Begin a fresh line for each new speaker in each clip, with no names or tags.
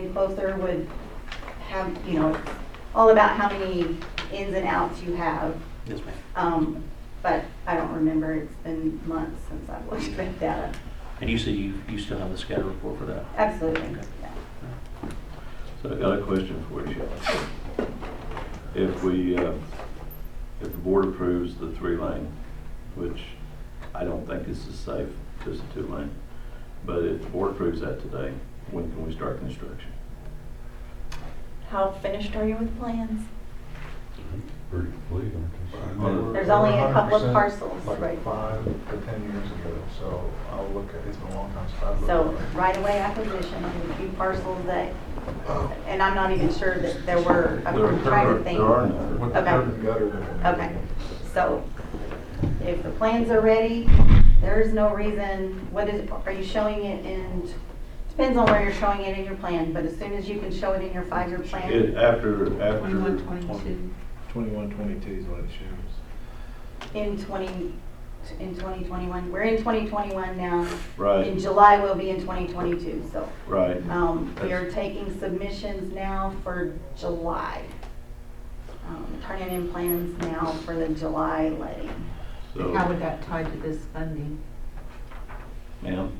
getting closer would have, you know, it's all about how many ins and outs you have.
Yes, ma'am.
Um, but I don't remember, it's been months since I've looked at data.
And you said you, you still have the scatter report for that?
Absolutely, yeah.
So I got a question for you. If we, uh, if the board approves the three lane, which I don't think is as safe as the two lane, but if the board approves that today, when can we start construction?
How finished are you with plans?
Pretty complete, aren't
Well,
they?
There's
only a couple of
100%
parcels, right.
Like five to 10 years ago, so I'll look at, it's been a long time since I've looked.
So
at it.
right away acquisition, a few parcels that,
Oh.
and I'm not even sure that there were,
There-
I'm
there
trying
are-
to think.
There are none.
With the
Okay.
curb and gutter. that we-
Okay, so if the plans are ready, there is no reason, what is, are you showing it in, depends on where you're showing it in your plan, but as soon as you can show it in your five-year
It,
plan,
after, after.
21, 22.
21, 22 is what it shows.
in twenty, in twenty twenty-one, we're in twenty twenty-one now. In
Right,
July, we'll be in twenty twenty-two, so,
right.
um, we are taking submissions now for July. Um, Turning in plans now for the July letting.
So,
How would that tie to this funding?
ma'am?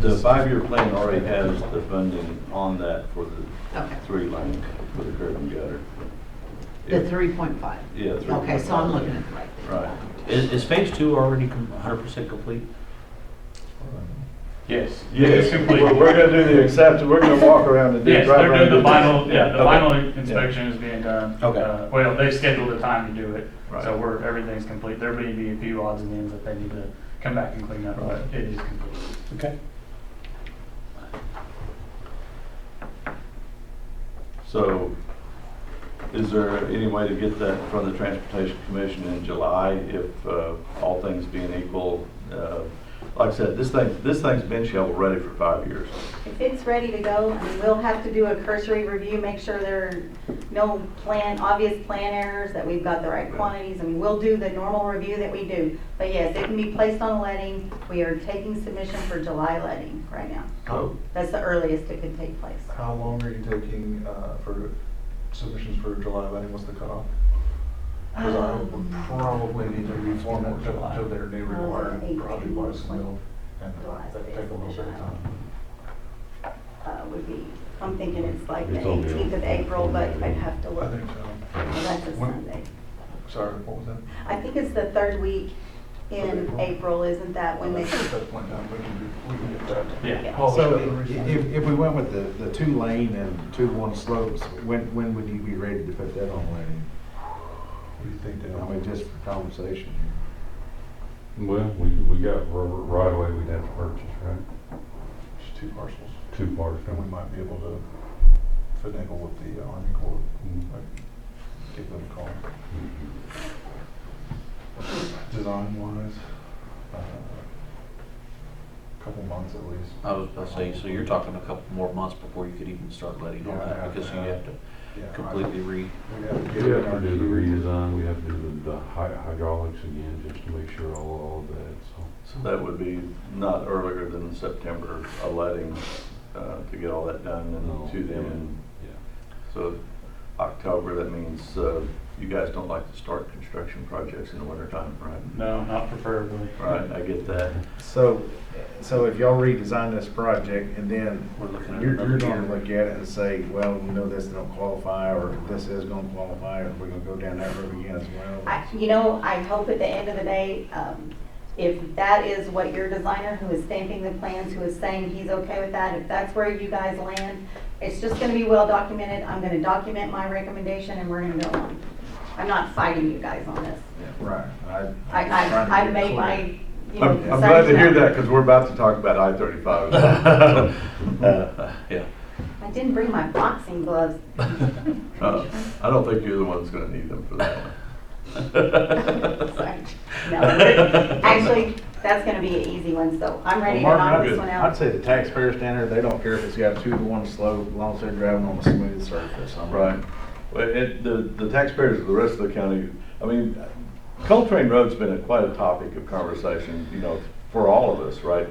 The five-year plan already has the funding on that for the
Okay,
three lane for the curb and gutter.
the three point five.
Yeah.
Okay, so I'm looking at the right thing.
Right.
Is, is phase two already hundred percent complete?
Yes.
Yes,
It's complete.
we're, we're gonna do the accept, we're gonna walk around and do.
Yes,
drive
they're
around and
doing the
do this.
final, yeah, the
Okay.
final inspection is being done.
Okay.
Uh, Well, they scheduled a time to do it, so
Right.
we're, everything's complete. There may be a few odds and ends that they need to come back and clean up, but
Right.
it is complete.
Okay.
So, is there any way to get that from the Transportation Commission in July if, uh, all things being equal? Uh, Like I said, this thing, this thing's been shovel-ready for five years.
If it's ready to go, I mean, we'll have to do a cursory review, make sure there are no plan, obvious plan errors, that we've got the right quantities. I mean, we'll do the normal review that we do. But yes, it can be placed on letting. We are taking submission for July letting right now.
How-
That's the earliest it could take place.
How long are you taking uh, for submissions for July letting, what's the cutoff? Because I would probably need to reform it to to their new
Um,
requirement, probably by
eighteen,
submittal, and
July's
that'd take a little bit of time.
Uh, would be, I'm thinking it's like the
It's on the-
18th of April, but I'd have to
I
look.
think so.
Well, That's a
When-
Sunday.
Sorry, what was that?
I think it's the third week in
April.
April, isn't that when they?
At that point in time, we can, do- we can get that.
Yeah.
polished
So
up and
i-
ready.
if, if we went with the, the two lane and two one slopes, when, when would you be ready to put that on lane?
What do you think,
I
Dale?
mean, just for conversation.
Well, we, we got rubber right away we'd have to purchase, right?
Just two parcels,
Two parts.
and we might be able to finagle with the uh, Army Corps, like, give them a call. Design wise, a uh, couple months at least.
I was about to say, so you're talking a couple more months before you could even start letting on that, because you have to
Yeah, I-
completely re,
We have to
We
get it in
have
our
to do the
queue.
redesign, we have to do the the hy- hydraulics again, just to make sure all, all of that, so.
So that would be not earlier than September, a letting, uh, to get all that done and to them. And
Yeah.
So October, that means, uh, you guys don't like to start construction projects in the wintertime, right?
No, not preferably.
Right, I get that.
So, so if y'all redesign this project and then
we're looking at
you're, you're
another
gonna
year.
look at it and say, well, you know, this don't qualify, or this is gonna qualify, or we're gonna go down that road again as well.
I, you know, I hope at the end of the day, um, if that is what your designer who is stamping the plans, who is saying he's okay with that, if that's where you guys land, it's just gonna be well documented, I'm gonna document my recommendation and we're gonna go on. I'm not fighting you guys on this.
Right.
I,
I'm just trying to
I, I
get
made
clear.
my, you know.
I'm, I'm glad to hear
concerns
that, because we're about to talk about I-35. Uh, Yeah.
out. I didn't bring my boxing gloves.
Uh, I don't think you're the one that's gonna need them for that one.
Sorry. No. Actually, that's gonna be an easy one, so I'm ready to
Well, Mark,
knock
I'd-
this one
I'd
out.
say the taxpayer standard, they don't care if it's got a two to one slope, as long as they're driving on a smooth surface. I'm-
Right. Well, it, the, the taxpayers of the rest of the county, I mean, Coltrane Road's been a- quite a topic of conversation, you know, for all of us, right?